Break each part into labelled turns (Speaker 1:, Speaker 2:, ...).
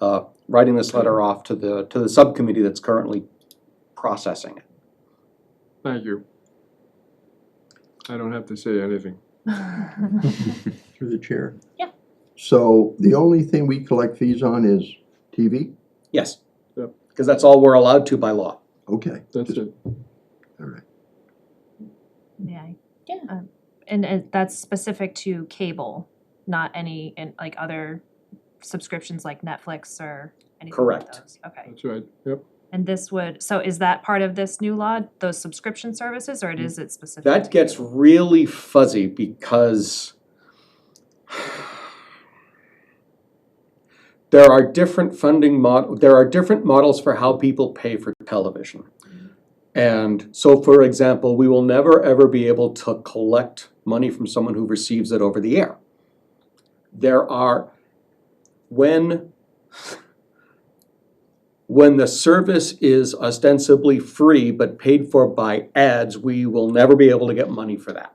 Speaker 1: uh, writing this letter off to the, to the subcommittee that's currently processing it.
Speaker 2: Thank you. I don't have to say anything.
Speaker 3: Through the chair.
Speaker 4: Yeah.
Speaker 3: So the only thing we collect fees on is TV?
Speaker 1: Yes.
Speaker 2: Yep.
Speaker 1: Because that's all we're allowed to by law.
Speaker 3: Okay.
Speaker 2: That's
Speaker 3: just-
Speaker 2: it.
Speaker 3: All right.
Speaker 4: May I?
Speaker 5: Yeah.
Speaker 4: Um, And uh, that's specific to cable, not any, and like other subscriptions like Netflix or anything like
Speaker 1: Correct.
Speaker 4: those? Okay,
Speaker 2: That's right. Yep.
Speaker 4: and this would, so is that part of this new law, those subscription services, or it is it specific?
Speaker 1: That
Speaker 4: to
Speaker 1: gets
Speaker 4: cable?
Speaker 1: really fuzzy because there are different funding mod, there are different models for how people pay for television. And so, for example, we will never ever be able to collect money from someone who receives it over the air. There are, when, when the service is ostensibly free but paid for by ads, we will never be able to get money for that.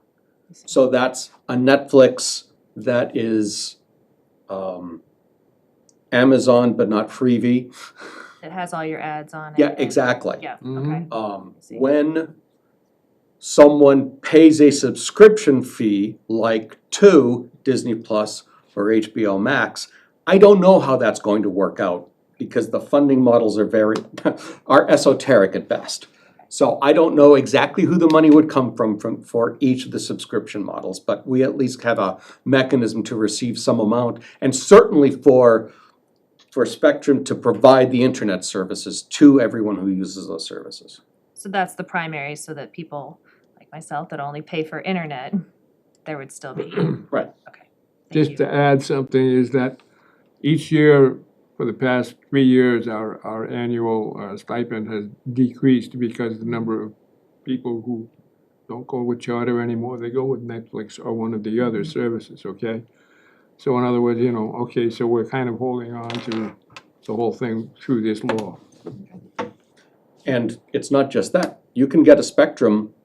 Speaker 1: So that's a Netflix that is um, Amazon but not freebie.
Speaker 4: It has all your ads on it?
Speaker 1: Yeah,
Speaker 4: and-
Speaker 1: exactly.
Speaker 4: Yeah, okay,
Speaker 2: Mhm.
Speaker 1: Um,
Speaker 4: I see.
Speaker 1: when someone pays a subscription fee like to Disney Plus or HBO Max, I don't know how that's going to work out because the funding models are very, are esoteric at best. So I don't know exactly who the money would come from, from, for each of the subscription models, but we at least have a mechanism to receive some amount. And certainly for, for Spectrum to provide the internet services to everyone who uses those services.
Speaker 4: so that's the primary, so that people like myself that only pay for internet, there would still be,
Speaker 1: Right.
Speaker 4: thank
Speaker 2: Just
Speaker 4: you.
Speaker 2: to add something is that each year for the past three years, our, our annual uh, stipend has decreased because the number of people who don't go with charter anymore, they go with Netflix or one of the other services, okay? So in other words, you know, okay, so we're kind of holding on to the whole thing through this law.
Speaker 1: And it's not just that. You can get a Spectrum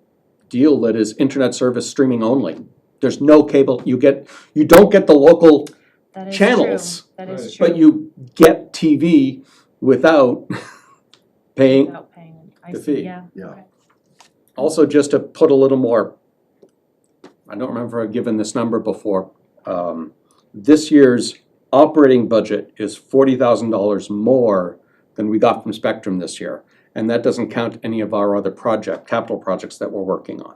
Speaker 1: deal that is internet service streaming only. There's no cable, you get, you don't get the local,
Speaker 4: That is true.
Speaker 1: channels,
Speaker 4: That is true.
Speaker 1: but you get TV without paying.
Speaker 4: Without paying, I
Speaker 1: the
Speaker 4: see,
Speaker 1: fee.
Speaker 4: yeah.
Speaker 3: Yeah.
Speaker 1: Also, just to put a little more, I don't remember I've given this number before. um, This year's operating budget is forty thousand dollars more than we got from Spectrum this year. And that doesn't count any of our other project, capital projects that we're working on.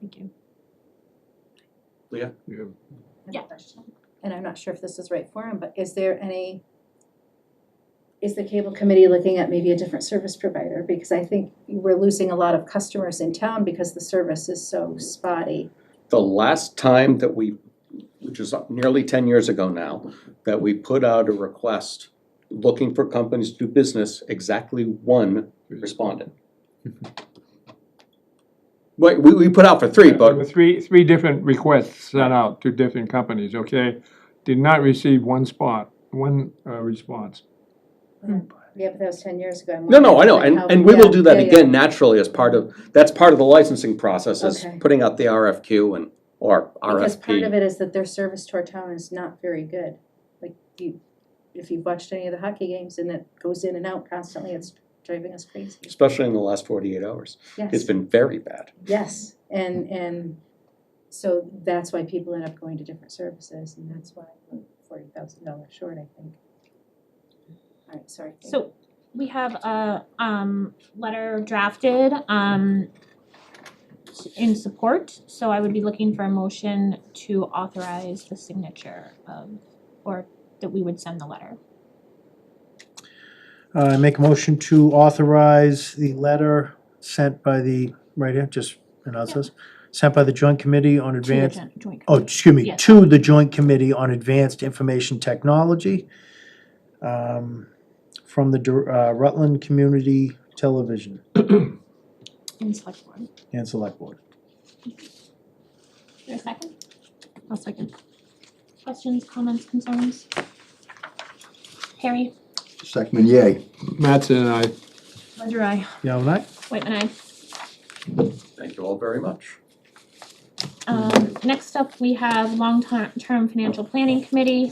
Speaker 4: Thank you.
Speaker 2: You have
Speaker 5: I have a
Speaker 4: Yeah.
Speaker 5: question, And I'm not sure if this is right for him, but is there any, is the cable committee looking at maybe a different service provider? Because I think we're losing a lot of customers in town because the service is so
Speaker 1: Mm-hmm.
Speaker 5: spotty.
Speaker 1: The last time that we, which is nearly ten years ago now, that we put out a request looking for companies to do business, exactly one responded. Wait, we, we put out for three,
Speaker 2: There were
Speaker 1: but,
Speaker 2: Three, three different requests sent out to different companies, okay? Did not receive one spot, one uh, response.
Speaker 5: Yeah, but that was ten years ago. I'm
Speaker 1: no, no, I
Speaker 5: wondering
Speaker 1: know, and,
Speaker 5: how-
Speaker 1: and we will
Speaker 5: yeah,
Speaker 1: do that
Speaker 5: yeah, yeah.
Speaker 1: again naturally as part of, that's part of the licensing process, is
Speaker 5: Okay.
Speaker 1: putting out the RFQ and, or
Speaker 5: Because part of
Speaker 1: RFP.
Speaker 5: it is that their service to our town is not very good. Like you, if you've watched any of the hockey games and it goes in and out constantly, it's driving us crazy.
Speaker 1: Especially in the last forty-eight hours.
Speaker 5: Yes.
Speaker 1: It's been very bad.
Speaker 5: Yes, and, and so that's why people end up going to different services, and that's why we're forty thousand dollars short, I think. All right, sorry. Kate.
Speaker 6: So we have a um letter drafted um s- in support, so I would be looking for a motion to authorize the signature of or that we would send the letter.
Speaker 7: I Uh, make a motion to authorize the letter sent by the, right here, just announce this, sent by the Joint Committee on
Speaker 6: to the
Speaker 7: Advanced,
Speaker 6: joint- joint
Speaker 7: oh,
Speaker 6: committee.
Speaker 7: excuse me,
Speaker 6: Yes.
Speaker 7: to the Joint Committee on Advanced Information Technology um, from the Dur- uh, Rutland Community Television
Speaker 6: And select board.
Speaker 7: and Select Board.
Speaker 6: Is there a second? I'll second. Questions, comments, concerns? Harry,
Speaker 3: Second, yay.
Speaker 2: Mattson and I.
Speaker 4: Ledger eye.
Speaker 7: Yeah, and I?
Speaker 6: Whitman, and I.
Speaker 1: Thank you all very much.
Speaker 6: Um next up, we have long-term term financial planning committee.